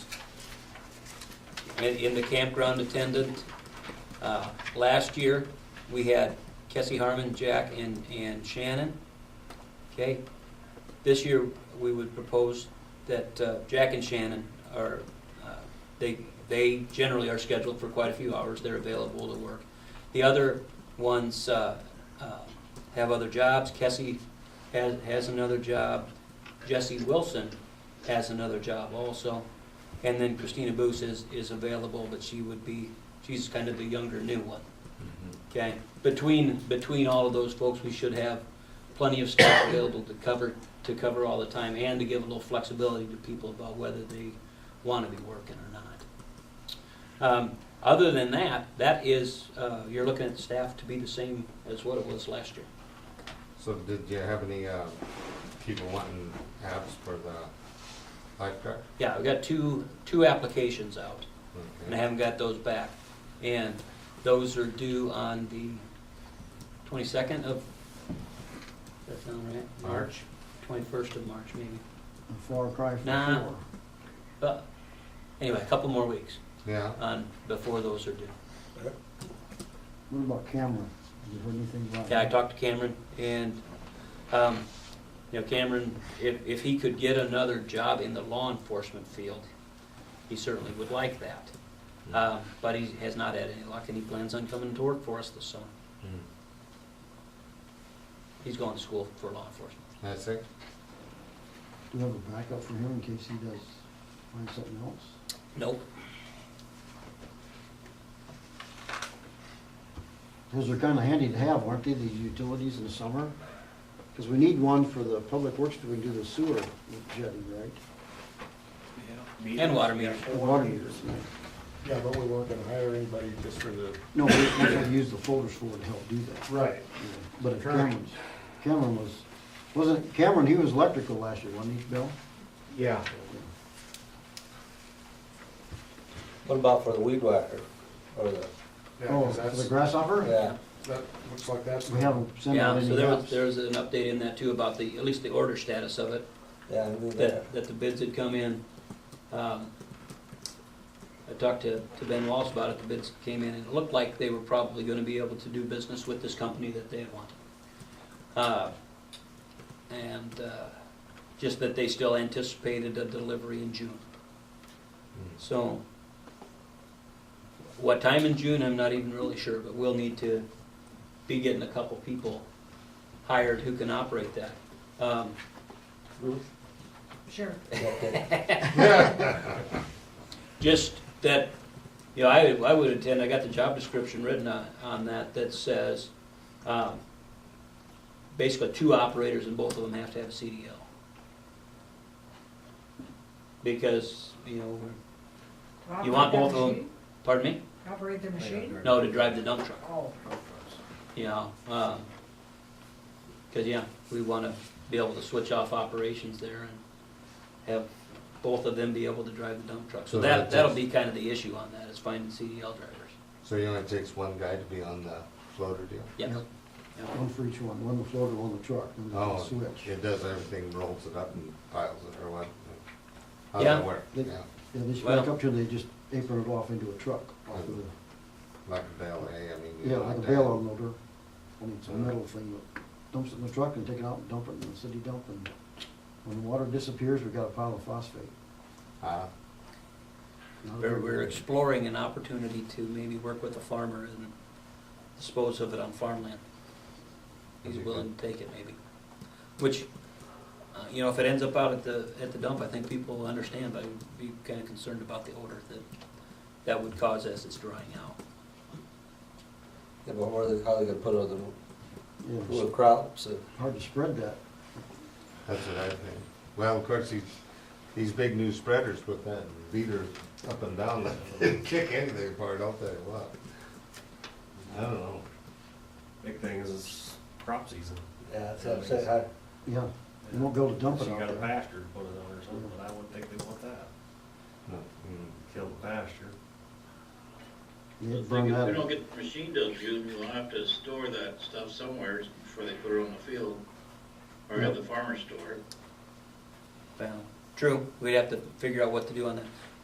in, in the campground attendant. Uh, Last year, we had Kessie Harmon, Jack, and, and Shannon. Okay? This year, we would propose that uh, Jack and Shannon are, uh, they, they generally are scheduled for quite a few hours. They're available to work. The other ones uh, uh, have other jobs. Kessie has, has another job. Jesse Wilson has another job also. And then Christina Boos is, is available, but she would be, she's kind of the younger new one. Okay, between, between all of those folks, we should have plenty of staff available to cover, to cover all the time and to give a little flexibility to people about whether they want to be working or not. Um, Other than that, that is, uh, you're looking at staff to be the same as what it was last year. So did you have any uh, people wanting apps for the lifeguard? Yeah, I've got two, two applications out. and I Okay. haven't got those back. And those are due on the twenty-second of, does that sound right? March? Twenty-first of March, maybe. Far cry from Nah. shore. But, anyway, a couple more weeks Yeah, on, before those are due. What about Cameron? Have you heard anything about? Yeah, I him? talked to Cameron, and, um, you know, Cameron, if, if he could get another job in the law enforcement field, he certainly would like that. Uh, but he has not had any luck, and he plans on coming to work for us this summer. Mm-hmm. He's going to school for law enforcement. that's it? Do you have a backup for him in case he does find something else? Nope. Those are kinda handy to have, aren't they, these utilities in the summer? Cause we need one for the public works, we can do the sewer jetty, right? And water meter. The water meters. right? Yeah, but we weren't gonna hire anybody just for the. No, we we gotta use the folders for to help do that. Right. Yeah. But if Correct. Cameron's, Cameron was, wasn't, Cameron, he was electrical last year, wasn't he, Bill? Yeah. What about for the weed whacker, or the, Yeah, Oh, 'cause for the that's, grasshopper? yeah, that looks like that's. We haven't sent out Yeah, any so there was, apps. there was an update in that too about the, at least the order status of it, yeah, I knew that. that, that the bids had come in. Um, I talked to, to Ben Walsh about it, the bids came in, and it looked like they were probably gonna be able to do business with this company that they had wanted. Uh, And, uh, just that they still anticipated a delivery in June. So, what time in June, I'm not even really sure, but we'll need to be getting a couple people hired who can operate that. Um, Sure. Just that, you know, I, I would intend, I got the job description written on, on that that says, um, basically two operators and both of them have to have a CDL. Because, you know, we're- To You want both operate their of them? machine? pardon me? Operate the machine? No, to drive the dump truck. Oh, you know, um 'cause cause yeah, we wanna be able to switch off operations there and have both of them be able to drive the dump truck. So So that, that's- that'll be kind of the issue on that, is finding CDL drivers. So it only takes one guy to be on the floater deal? Yeah. Yep. One for each one, one the floater, one the truck, and then the Oh, switch. it does everything, rolls it up and piles it or what? How's Yeah. that work? They- Yeah, Yeah, they just Well- back up till they just apron it off into a truck, off of the, like a valet, I mean. you yeah, know, like a that- bail unloader. I mean, it's a metal thing that dumps it in the truck and take it out and dump it in the city dump and when the water disappears, we've got a pile of phosphate. Ah, Not a We're, good- we're exploring an opportunity to maybe work with a farmer and dispose of it on farmland. He's Okay. willing to take it maybe, which, uh, you know, if it ends up out at the, at the dump, I think people will understand, but I would be kinda concerned about the odor that, that would cause as it's drying out. Yeah, but where they, how they gonna put all the, Yeah, it's little crops, and- hard to spread that. that's what I think. Well, of course, these, these big new spreaders with that leader up and down, they kick anything apart, I'll tell you what. I don't know. Big thing is it's crop season. yeah, that's what I'm saying, I, Yeah, you won't be able to dump So it you out got a there. pasture to put it on or something, but I wouldn't think they want that. No, mm, Kill the pasture. They'd If burn we that don't up. get the machine till June, we'll have to store that stuff somewhere before they put it on the field or at the farmer's store. Well, true, we'd have to figure out what to do on that.